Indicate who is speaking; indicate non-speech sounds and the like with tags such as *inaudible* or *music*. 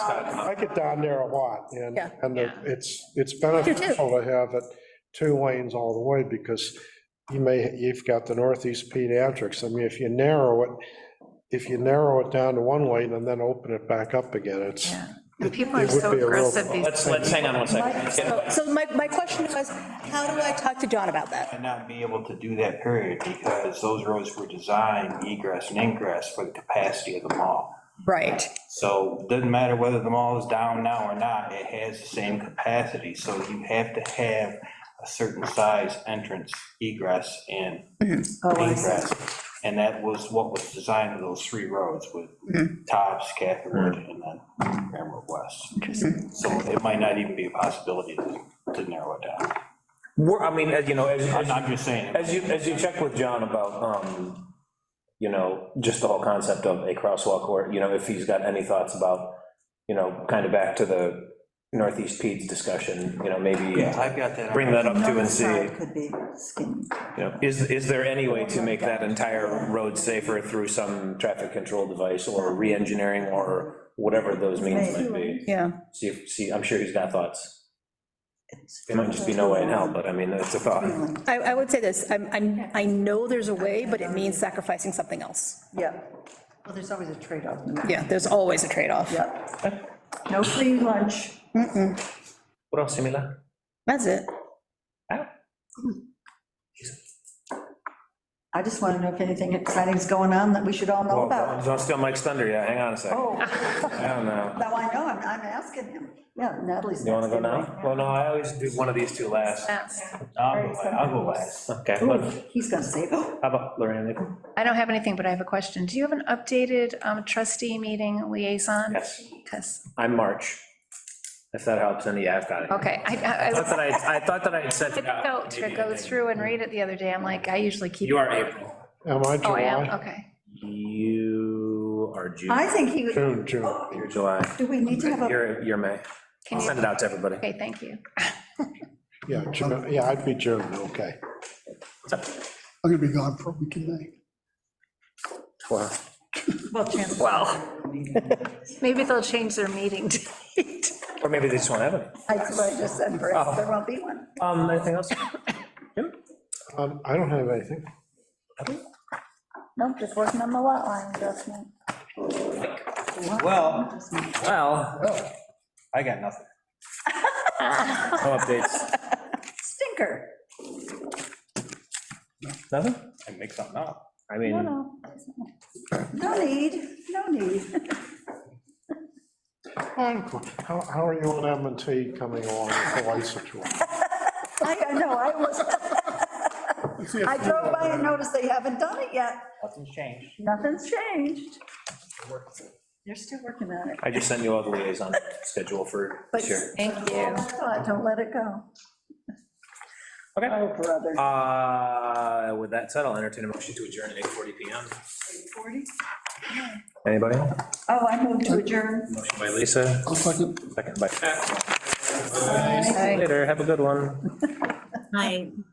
Speaker 1: I get down there a lot, and,
Speaker 2: Yeah.
Speaker 1: and it- it's, it's beneficial to have it two lanes all the way, because you may, you've got the northeast pediatrics, I mean, if you narrow it, if you narrow it down to one lane and then open it back up again, it's,
Speaker 3: And people
Speaker 1: It
Speaker 3: are
Speaker 1: would
Speaker 3: so
Speaker 1: be a real
Speaker 3: aggressive these
Speaker 4: Let's, let's hang on one second. Let's get
Speaker 2: So
Speaker 4: back
Speaker 2: so my, my question was, how do I talk to John about that?
Speaker 5: and not be able to do that period because those roads were designed egress and ingress for the capacity of the mall.
Speaker 2: Right,
Speaker 5: So doesn't matter whether the mall is down now or not, it has the same capacity. So you have to have a certain size entrance egress and ingress. And that was what was designed of those three roads with Tops, Catherwood, and then Grand Road West. So it might not even be a possibility to to narrow it down.
Speaker 4: We're, I mean, as you know, as,
Speaker 5: I'm I'm just saying.
Speaker 4: as you, as you check with John about, um, you know, just the whole concept of a crosswalk, or, you know, if he's got any thoughts about, you know, kind of back to the Northeast Peds discussion, you know, maybe uh,
Speaker 5: I've got that.
Speaker 4: bring that up too and see.
Speaker 6: Side Could be skinny.
Speaker 4: You know, Is, is there any way to make that entire road safer through some traffic control device or re-engineering or whatever those means might be?
Speaker 2: yeah.
Speaker 4: See, if- see, I'm sure he's got thoughts. It might just be no way in hell, but I mean, it's a thought.
Speaker 2: I, I would say this, I'm, I'm, I know there's a way, but it means sacrificing something else.
Speaker 6: Yeah. Well, there's always a trade-off.
Speaker 2: Yeah, there's always a trade-off.
Speaker 6: Yeah. No free lunch.
Speaker 4: What else, Emila?
Speaker 2: That's it.
Speaker 6: I just want to know if anything exciting is going on that we should all know
Speaker 4: Well,
Speaker 6: about.
Speaker 4: Oh, don't steal Mike's thunder yet, hang on a second.
Speaker 6: Oh,
Speaker 4: I don't know.
Speaker 6: now I know, I'm, I'm asking him. Yeah, Natalie's.
Speaker 4: You wanna go
Speaker 6: asking me.
Speaker 4: now? Well, no, I always do one of these two last.
Speaker 5: I'll go- I'll go last.
Speaker 4: Okay,
Speaker 6: Ooh,
Speaker 4: look,
Speaker 6: He's gonna say, oh,
Speaker 4: how about Lorraine?
Speaker 3: I don't have anything, but I have a question. Do you have an updated um, trustee meeting liaison?
Speaker 4: Yes,
Speaker 3: Because,
Speaker 4: I'm March. If that helps, any, yeah, I've got it.
Speaker 3: okay, I, I- I
Speaker 4: I thought
Speaker 3: was
Speaker 4: that I, I thought that I had said. uh,
Speaker 3: difficult to go through and read it the other day. I'm like, I usually keep.
Speaker 4: You are April.
Speaker 1: am I
Speaker 3: Oh, I am,
Speaker 1: July?
Speaker 3: okay.
Speaker 4: You are June.
Speaker 6: I think he, would-
Speaker 1: June, June.
Speaker 4: You're July.
Speaker 6: do we need to have a,
Speaker 4: You're, you're May.
Speaker 3: Can
Speaker 4: I'll
Speaker 3: you-
Speaker 4: send it out to everybody.
Speaker 3: Okay, thank you.
Speaker 1: Yeah, June, yeah, I'd be June, okay.
Speaker 7: I'm gonna be gone for a week in May.
Speaker 1: Well,
Speaker 6: well, chance.
Speaker 3: Well, maybe they'll change their meeting date.
Speaker 4: Or maybe they just won't have it.
Speaker 6: That's what I just said,
Speaker 4: Oh.
Speaker 6: perhaps there won't be one.
Speaker 4: Um, anything else?
Speaker 1: um, I don't have anything.
Speaker 6: Nope, just working on the lot line adjustment.
Speaker 5: Well,
Speaker 4: Well,
Speaker 5: I got nothing.
Speaker 4: no updates.
Speaker 6: Stinker.
Speaker 4: Nothing?
Speaker 5: I make something up.
Speaker 4: I mean,
Speaker 6: No, no need, no need. *laughs*
Speaker 1: How, how are you on M and T coming along with the license? one?
Speaker 6: I, I know, I was, I drove by and noticed they haven't done it yet.
Speaker 5: Nothing's changed.
Speaker 6: Nothing's changed. You're still working on it.
Speaker 4: I just sent you all the liaison schedule for
Speaker 6: But-
Speaker 4: this year.
Speaker 3: Thank you.
Speaker 6: Don't- Don't let it go.
Speaker 4: Okay.
Speaker 6: Oh, brother.
Speaker 4: Uh, with that said, I'll entertain a motion to adjourn at 8:40 PM.
Speaker 6: 40?
Speaker 4: Anybody?
Speaker 6: Oh, I moved to adjourn.
Speaker 4: Motion by Lisa,
Speaker 7: I'll second.
Speaker 4: second by Pat. Later, have a good one.